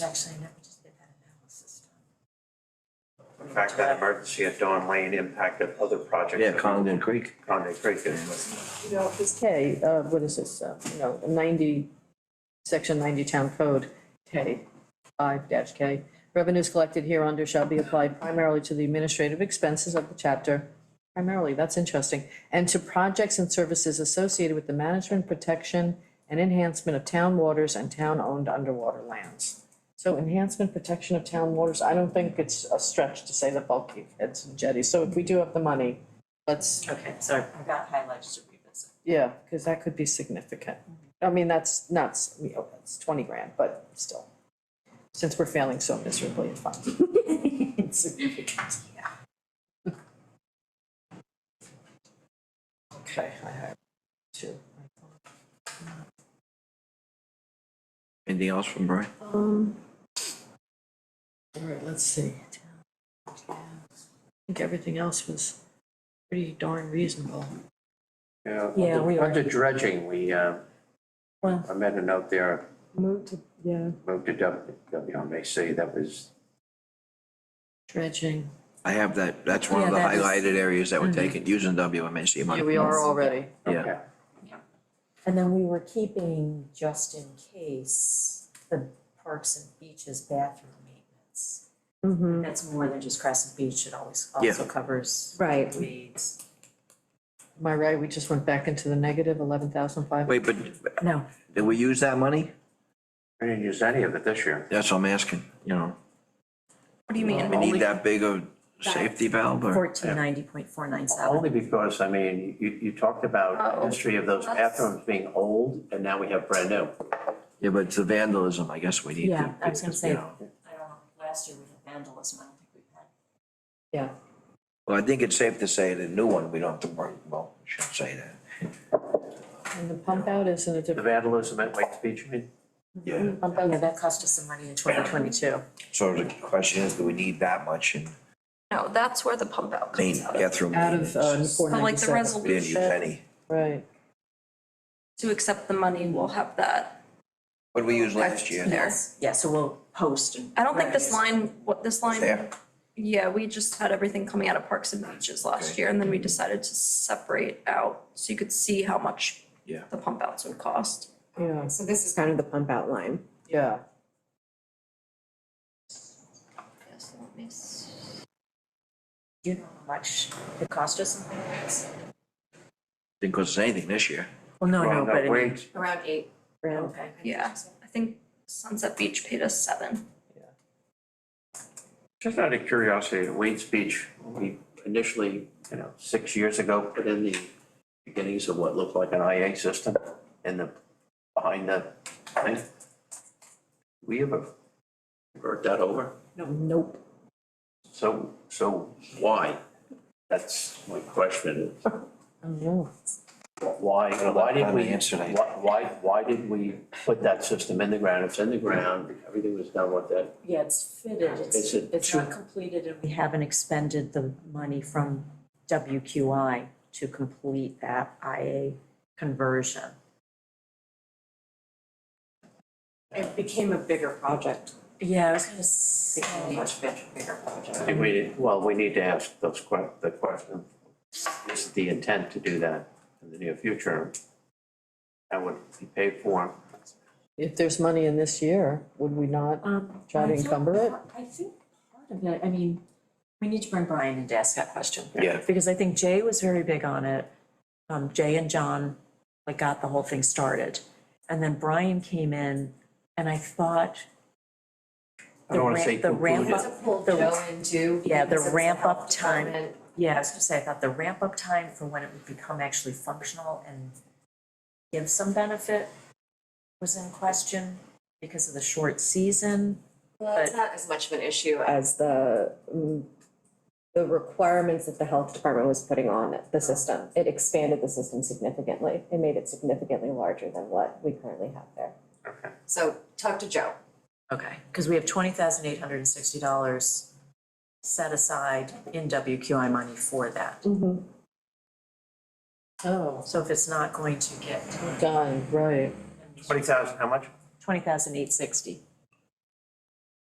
Actually, never just get that analysis done. In fact, that emergency at Dawn Lane impacted other projects. Yeah, Condon Creek. Condon Creek is, You know, this K, uh, what is this, uh, you know, ninety, section ninety town code, K, five dash K. Revenues collected here under shall be applied primarily to the administrative expenses of the chapter, primarily, that's interesting, and to projects and services associated with the management, protection, and enhancement of town waters and town-owned underwater lands. So enhancement, protection of town waters, I don't think it's a stretch to say the bulkheads and jetties, so if we do have the money, let's Okay, sorry. I've got highlights to revisit. yeah, because that could be significant. I mean, that's nuts, you know, it's twenty grand, but still. Since we're failing so miserably, it's fine. It's significant. Okay, I have two. Anything else from Brian? Um. All right, let's see. I think everything else was pretty darn reasonable. yeah. Yeah, under- we are. Under dredging, we, uh, Well- I made a note there, Moved to, yeah. moved to W- WMAC, that was, Dredging. I have that, that's one of the Yeah, that is- highlighted areas that were taken using WMAC money. Yeah, we are already. Yeah, okay. And then we were keeping, just in case, the parks and beaches bathroom maintenance. Mm-hmm. That's more than just Crescent Beach, it always Yeah. also covers. Right. Weeds. Am I right? We just went back into the negative eleven thousand five? wait, but No, did we use that money? We didn't use any of it this year. That's what I'm asking, you know, What do you mean? we need that big of safety valve or? fourteen ninety point four nine seven. Only because, I mean, you, you talked about the Oh, history of those that's- bathrooms being old, and now we have brand new. Yeah, but it's the vandalism, I guess we need to. Yeah, I was gonna you say- know. I don't know, last year we had vandalism, I don't think we've had. Yeah. Well, I think it's safe to say the new one, we don't have to worry, well, we shouldn't say that. And the pump out is in a The different, vandalism at White Beach, I mean, Yeah. pump out, Oh, Yeah, that cost us some money in twenty twenty-two. So the question is, do we need that much in No, that's where the pump out comes main, out of. bathroom out of, uh, maintenance? four But like the ninety-seven. We didn't use resolution any. Right. to accept the money, we'll have that. What did we use last year? There. Yeah, so we'll post and. I don't think this line, what this line. There. Yeah, we just had everything coming out of Parks and Beaches last year and then we decided to separate out so you could see how much Yeah. the pump outs would cost. Yeah, So this is kind of the pump out line. yeah. Yes, let me s- Do you know how much it cost us in maintenance? Didn't cost us anything this year. Well, no, well, no, but. no, it- wait, Around eight. Around, Okay. Yeah, I think Sunset Beach paid us seven. just out of curiosity, at Wayne's Beach, we initially, you know, six years ago, put in the beginnings of what looked like an IA system in the, behind the thing. We ever convert that over? No, nope. So, so why? That's my question. I don't Mm-hmm. know. Why, why did Kinda we, answer that. why, why, why did we put that system in the ground? It's in the ground, everything was done with it. Yeah, it's fitted, Is it's, it it's two- not completed and we haven't expended the money from WQI to complete that IA conversion. It became a bigger project. Yeah, I was gonna say. Became a much bigger, bigger project. I think we, well, we need to ask those que- the question, is the intent to do that in the near future? That would be paid for. If there's money in this year, would we not? Uh. Um. Try to I thought encumber it? part- I think part of it, I mean, we need to bring Brian in to ask that question. Yeah. Because I think Jay was very big on it. Um, Jay and John, like, got the whole thing started. And then Brian came in and I thought I don't wanna The say ramp- the ramp concluded. up The- into. Yeah, the because it's a ramp up health time. department. Yeah, I was gonna say, I thought the ramp up time for when it would become actually functional and give some benefit was in question because of the short season. Well, it's not as much of an issue as the, mm, the requirements that the health department was putting on it- the system. It expanded the system significantly. It made it significantly larger than what we currently have there. Okay. So talk to Joe. Okay. Cause we have twenty thousand eight hundred and sixty dollars set aside in WQI money for that. Mm-hmm. Oh, So if it's not going to get done, right. Twenty thousand, how much? twenty thousand eight sixty,